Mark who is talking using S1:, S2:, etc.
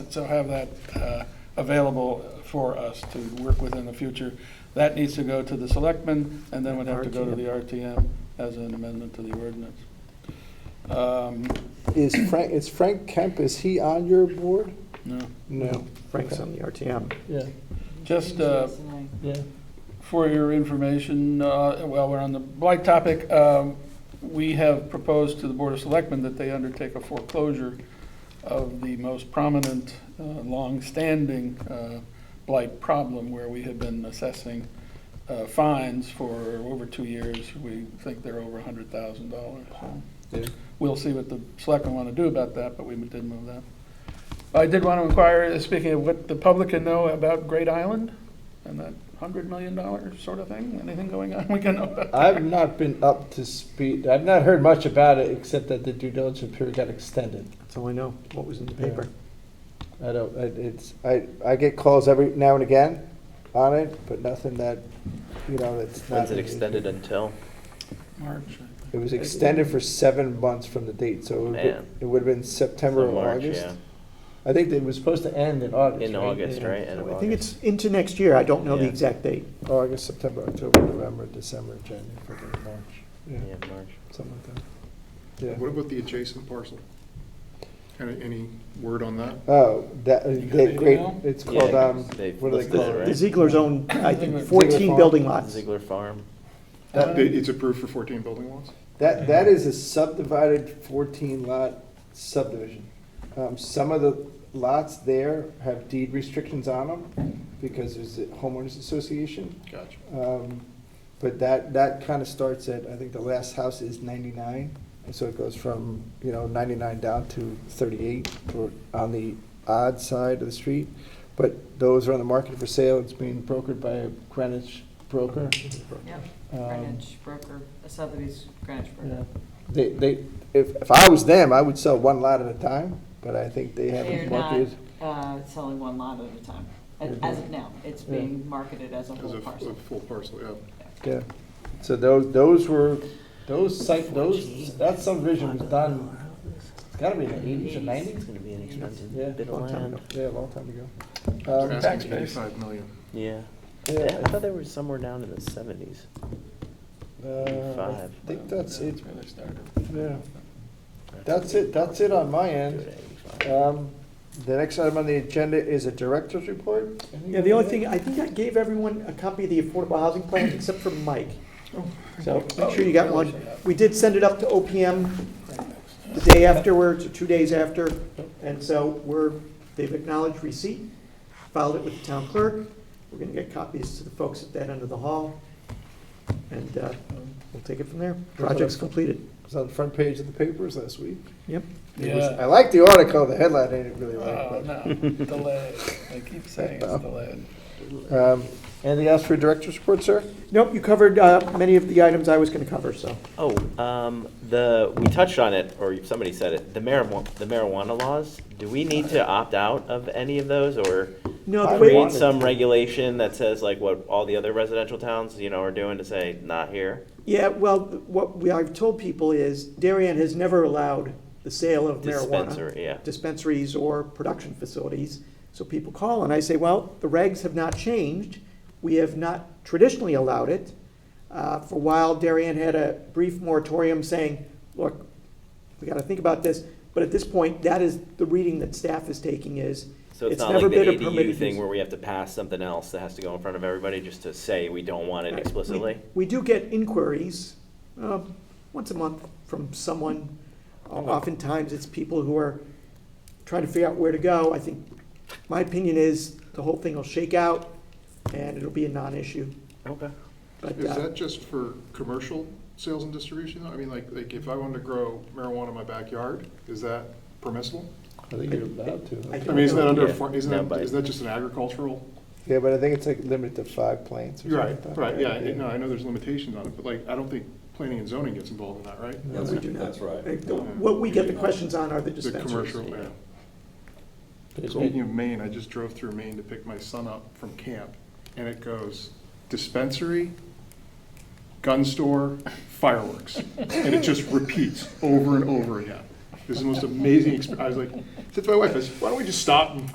S1: so have that uh, available for us to work with in the future. That needs to go to the selectmen, and then would have to go to the RTM as an amendment to the ordinance. Um,
S2: Is Frank, is Frank Kemp, is he on your board?
S1: No,
S2: No.
S3: Frank's on the RTM.
S4: Yeah,
S1: just uh,
S4: yeah.
S1: For your information, uh, while we're on the blight topic, um, we have proposed to the Board of Selectmen that they undertake a foreclosure of the most prominent, uh, longstanding uh, blight problem where we have been assessing uh, fines for over two years. We think they're over $100,000.
S2: Yeah.
S1: We'll see what the selectmen want to do about that, but we did move that. I did want to inquire, uh, speaking of what the public can know about Great Island and that $100 million sort of thing, anything going on we can know about?
S2: I've not been up to speed, I've not heard much about it, except that the due diligence period got extended.
S3: That's all I know, what was in the paper.
S2: I don't, I- it's, I, I get calls every now and again on it, but nothing that, you know, that's not.
S5: When's it extended until?
S1: March, I think.
S2: It was extended for seven months from the date, so it would-
S5: Man.
S2: it would have been September
S5: Till
S2: or
S5: March,
S2: August.
S5: yeah.
S2: I think it was supposed to end in August.
S5: In
S2: right?
S5: August, right? End of
S3: I think
S5: August.
S3: it's into next year, I don't know the
S5: Yeah.
S3: exact date.
S2: August, September, October, November, December, January, February, March. Yeah,
S5: Yeah, March.
S2: something like that. Yeah.
S6: What about the adjacent parcel? Any, any word on that?
S2: Oh, that, that great,
S1: email?
S2: it's
S5: Yeah,
S2: called, um,
S5: they've
S2: what do they
S5: listed it,
S2: call
S5: right?
S2: it?
S3: The Ziegler's own,
S1: Ziegler-
S3: I think,
S2: Ziegler Farm.
S3: 14 building lots.
S5: Ziegler Farm.
S2: That-
S1: Um,
S6: It's approved for 14 building lots?
S2: That, that is a subdivided fourteen lot subdivision. Um, some of the lots there have deed restrictions on them because there's a homeowners association.
S6: Gotcha.
S2: Um, But that, that kind of starts at, I think the last house is 99, and so it goes from, you know, 99 down to 38, or on the odd side of the street. But those are on the market for sale, it's being brokered by a Greenwich broker.
S7: Yep,
S2: Um,
S7: Greenwich broker, a Sotheby's Greenwich
S2: yeah.
S7: broker.
S2: They, they, if, if I was them, I would sell one lot at a time, but I think they have
S7: They're
S2: it
S7: not
S2: marketed.
S7: uh, selling one lot at a time, A- as of now. It's
S2: Yeah.
S7: being marketed as a
S6: As
S7: whole
S6: a f- a
S7: parcel.
S6: full parcel, yeah.
S2: Yeah, so those, those were, those site, those, that subdivision was done, it's gotta be in the 80s or 90s.
S5: It's gonna be an expensive
S2: Yeah.
S5: bit of
S3: Long time
S5: land.
S3: ago.
S2: Yeah, a long time ago.
S6: They're
S2: Um,
S1: tax
S6: asking
S1: base.
S6: 85 million.
S5: Yeah. Yeah, I
S2: yeah,
S5: thought they were somewhere down in the seventies.
S2: uh,
S5: Five.
S2: I think that's it,
S1: That's where they started.
S2: yeah. That's it, that's it on my end. Um, The next item on the agenda is a director's report.
S3: Yeah, the only thing, I think I gave everyone a copy of the affordable housing plan except for Mike. So make sure you got one. We did send it up to OPM the day afterwards, or two days after. And so we're, they've acknowledged receipt, filed it with the town clerk. We're gonna get copies to the folks at that end of the hall. And uh, we'll take it from there. Project's completed.
S2: It was on the front page of the papers last week.
S3: Yep.
S2: It was- I
S1: Yeah.
S2: like the article, the headline I didn't really
S1: Oh,
S2: like.
S1: no, delayed. They keep saying
S2: Oh.
S1: it's delayed.
S2: but, um, Anything else for director's report, sir?
S3: Nope, you covered uh, many of the items I was gonna cover, so.
S5: Oh, um, the, we touched on it, or somebody said it, the marijuana, the marijuana laws. Do we need to opt out of any of those or
S3: No, the way.
S5: create some regulation that says like what all the other residential towns, you know, are doing to say, not here?
S3: Yeah, well, what we, I've told people is Darien has never allowed the sale of marijuana.
S5: Dispensary, yeah.
S3: Dispensaries or production facilities. So people call and I say, well, the regs have not changed. We have not traditionally allowed it. Uh, for a while, Darien had a brief moratorium saying, look, we gotta think about this. But at this point, that is, the reading that staff is taking is,
S5: So it's
S3: it's
S5: not
S3: never
S5: like the
S3: been a permitted use.
S5: ADU thing where we have to pass something else that has to go in front of everybody just to say we don't want it
S3: Right. We-
S5: explicitly?
S3: We do get inquiries, um, once a month from someone. Oftentimes, it's people who are trying to figure out where to go. I think, my opinion is, the whole thing will shake out, and it'll be a non-issue.
S5: Okay.
S3: But,
S6: Is
S3: uh,
S6: that just for commercial sales and distribution? though? I mean, like, like if I wanted to grow marijuana in my backyard, is that permissible?
S2: I think you're allowed
S3: I
S2: to.
S6: I mean, isn't that under, a
S5: Yeah,
S6: farm-
S5: no,
S6: isn't that,
S5: but-
S6: isn't that just an agricultural?
S2: Yeah, but I think it's like limited to five planes or something like that.
S6: Right, yeah, no, I know there's limitations on it, but like, I don't think planning and zoning gets involved in that, right?
S3: no, we do not.
S8: That's right.
S3: Uh, the- What we get the questions on are the
S6: The
S3: dispensaries.
S6: commercial, yeah.
S5: yeah.
S6: Speaking of Maine, I just drove through Maine to pick my son up from camp, and it goes dispensary, gun store, fireworks. And it just repeats over and over again. This is the most amazing experience. I was like, said to my wife, I said, why don't we just stop and